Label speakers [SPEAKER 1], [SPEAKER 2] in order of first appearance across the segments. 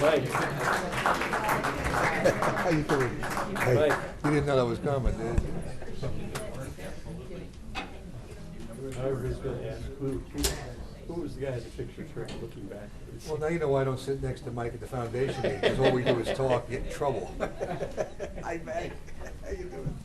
[SPEAKER 1] Mike,
[SPEAKER 2] How you doing? Hey,
[SPEAKER 1] Mike,
[SPEAKER 2] you didn't know that was coming, did you?
[SPEAKER 1] I was gonna ask, who, who was the guy in the picture Trey, looking back?
[SPEAKER 2] Well, now you know why I don't sit next to Mike at the foundation meeting, because all we do is talk, get in trouble. Hi, Mike. How you doing?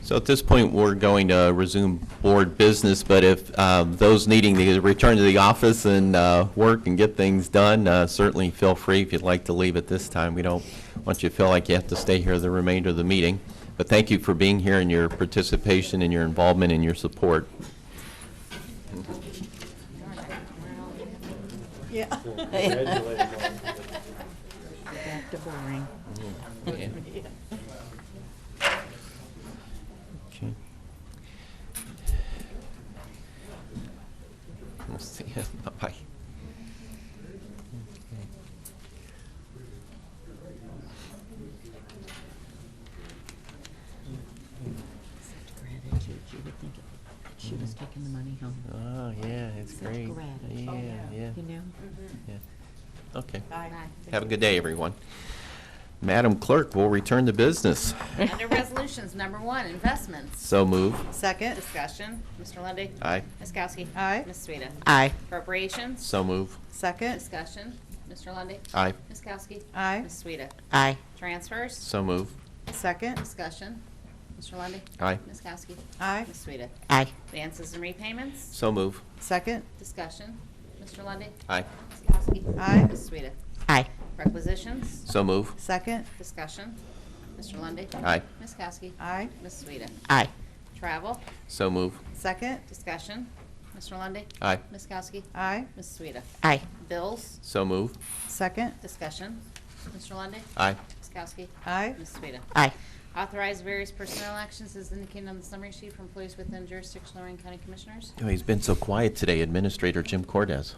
[SPEAKER 3] So at this point, we're going to resume board business, but if um, those needing to return to the office and uh, work and get things done, uh, certainly feel free if you'd like to leave at this time. We don't want you to feel like you have to stay here the remainder of the meeting. But thank you for being here and your participation and your involvement and your support.
[SPEAKER 4] Yeah.
[SPEAKER 1] Congratulations.
[SPEAKER 4] Back to boring.
[SPEAKER 3] Okay. We'll see you. Bye-bye.
[SPEAKER 4] Such gratitude, you would think that she was taking the money home.
[SPEAKER 3] Oh, yeah, it's
[SPEAKER 4] Such
[SPEAKER 3] great.
[SPEAKER 4] gratitude.
[SPEAKER 3] Yeah, yeah,
[SPEAKER 4] You know?
[SPEAKER 5] Mm-hmm.
[SPEAKER 3] yeah. Okay.
[SPEAKER 5] Aye.
[SPEAKER 3] Have a good day, everyone. Madam Clerk, we'll return to business.
[SPEAKER 5] Under resolutions, number one, investments.
[SPEAKER 3] So move.
[SPEAKER 4] Second.
[SPEAKER 5] Discussion, Mr. Lundy.
[SPEAKER 3] Aye.
[SPEAKER 5] Ms. Kowski.
[SPEAKER 4] Aye.
[SPEAKER 5] Ms. Sueda.
[SPEAKER 4] Aye.
[SPEAKER 5] Appropriations.
[SPEAKER 3] So move.
[SPEAKER 4] Second.
[SPEAKER 5] Discussion, Mr. Lundy.
[SPEAKER 3] Aye.
[SPEAKER 5] Ms. Kowski.
[SPEAKER 4] Aye.
[SPEAKER 5] Ms. Sueda.
[SPEAKER 4] Aye.
[SPEAKER 5] Transfers.
[SPEAKER 3] So move.
[SPEAKER 4] Second.
[SPEAKER 5] Discussion, Mr. Lundy.
[SPEAKER 3] Aye.
[SPEAKER 5] Ms. Kowski.
[SPEAKER 4] Aye.
[SPEAKER 5] Ms. Sueda.
[SPEAKER 4] Aye.
[SPEAKER 5] Advances and repayments.
[SPEAKER 3] So move.
[SPEAKER 4] Second.
[SPEAKER 5] Discussion, Mr. Lundy.
[SPEAKER 3] Aye.
[SPEAKER 5] Ms. Kowski.
[SPEAKER 4] Aye.
[SPEAKER 5] Ms. Sueda.
[SPEAKER 4] Aye.
[SPEAKER 5] Requisitions.
[SPEAKER 3] So move.
[SPEAKER 4] Second.
[SPEAKER 5] Discussion, Mr. Lundy.
[SPEAKER 3] Aye.
[SPEAKER 5] Ms. Kowski.
[SPEAKER 4] Aye.
[SPEAKER 5] Ms. Sueda.
[SPEAKER 4] Aye.
[SPEAKER 5] Travel.
[SPEAKER 3] So move.
[SPEAKER 4] Second.
[SPEAKER 5] Discussion, Mr. Lundy.
[SPEAKER 3] Aye.
[SPEAKER 5] Ms. Kowski.
[SPEAKER 4] Aye.
[SPEAKER 5] Ms. Sueda.
[SPEAKER 4] Aye.
[SPEAKER 5] Bills,
[SPEAKER 3] So move.
[SPEAKER 4] Second.
[SPEAKER 5] discussion. Mr. Lundy.
[SPEAKER 3] Aye.
[SPEAKER 5] Ms. Kowski.
[SPEAKER 4] Aye.
[SPEAKER 5] Ms. Sueda.
[SPEAKER 4] Aye.
[SPEAKER 5] Authorize various personnel actions as indicated on the summary sheet for employees within jurisdiction of Lorraine County Commissioners.
[SPEAKER 3] Oh, he's been so quiet today, Administrator Jim Cordes.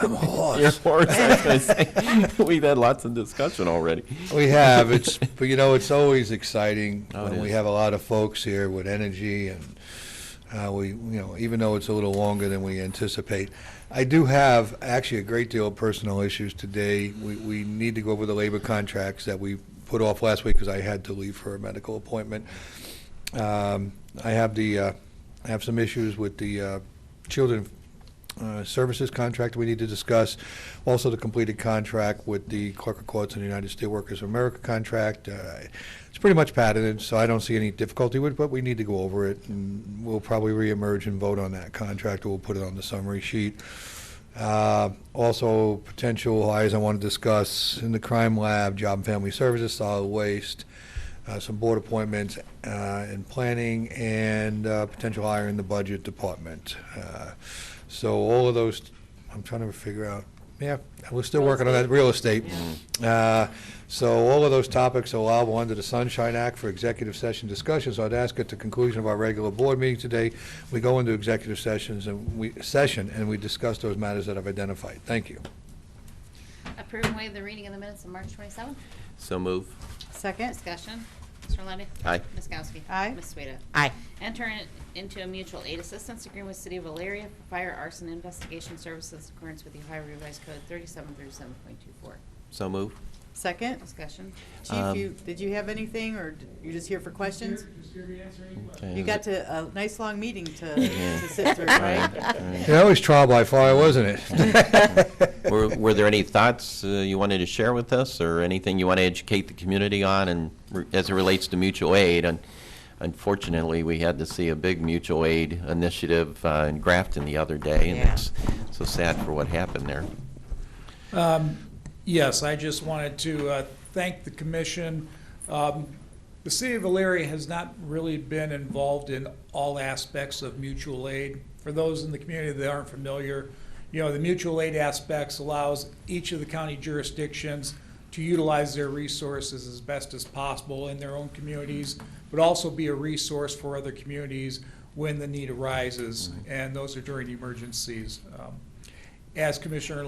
[SPEAKER 2] I'm a horse.
[SPEAKER 3] You're a horse, I was gonna say. We've had lots of discussion already.
[SPEAKER 2] We have, it's, but you know, it's always exciting
[SPEAKER 3] Oh, it
[SPEAKER 2] when we
[SPEAKER 3] is.
[SPEAKER 2] have a lot of folks here with energy and uh, we, you know, even though it's a little longer than we anticipate. I do have actually a great deal of personal issues today. We, we need to go over the labor contracts that we put off last week because I had to leave for a medical appointment. Um, I have the, uh, I have some issues with the uh, children uh, services contract we need to discuss. Also, the completed contract with the Clerk of Courts and the United Steelworkers of America contract. Uh, It's pretty much patented, so I don't see any difficulty with it, but we need to go over it. And we'll probably reemerge and vote on that contract, or we'll put it on the summary sheet. Uh, Also, potential hires I want to discuss in the crime lab, job and family services, solid waste, uh, some board appointments uh, in planning, and uh, potential hire in the budget department. Uh, So all of those, I'm trying to figure out, yeah, we're still working on that, real estate. Uh, So all of those topics are allowable under the Sunshine Act for executive session discussions. I'd ask at the conclusion of our regular board meeting today, we go into executive sessions and we, session, and we discuss those matters that I've identified. Thank you.
[SPEAKER 5] Approve and waive the reading of the minutes of March 27th.
[SPEAKER 3] So move.
[SPEAKER 4] Second.
[SPEAKER 5] Discussion, Mr. Lundy.
[SPEAKER 3] Aye.
[SPEAKER 5] Ms. Kowski.
[SPEAKER 4] Aye.
[SPEAKER 5] Ms. Sueda.
[SPEAKER 4] Aye.
[SPEAKER 5] Enter in- into a mutual aid assistance agreement with City of Valeria for fire arson investigation services in accordance with the Ohio Revised Code 3737.24.
[SPEAKER 3] So move.
[SPEAKER 6] Second.
[SPEAKER 5] Discussion,
[SPEAKER 6] Chief,
[SPEAKER 3] Um,
[SPEAKER 6] you, did you have anything, or d- you're just here for questions?
[SPEAKER 3] Okay,
[SPEAKER 6] You
[SPEAKER 3] is
[SPEAKER 6] got
[SPEAKER 3] it-
[SPEAKER 6] to, a nice long meeting to,
[SPEAKER 3] Yeah.
[SPEAKER 6] to sit through, right?
[SPEAKER 3] Right, right.
[SPEAKER 2] Yeah, that was trial by fire, wasn't it?
[SPEAKER 3] Were, were there any thoughts uh, you wanted to share with us, or anything you want to educate the community on, and re- as it relates to mutual aid? And unfortunately, we had to see a big mutual aid initiative uh, in Grafton the other day, and
[SPEAKER 6] Yeah.
[SPEAKER 3] it's so sad for what happened there.
[SPEAKER 7] Um, Yes, I just wanted to uh, thank the commission. Um, The city of Alariah has not really been involved in all aspects of mutual aid. For those in the community that aren't familiar, you know, the mutual aid aspects allows each of the county jurisdictions to utilize their resources as best as possible in their own communities, but also be a resource for other communities when the need arises, and those are during emergencies. Um, As Commissioner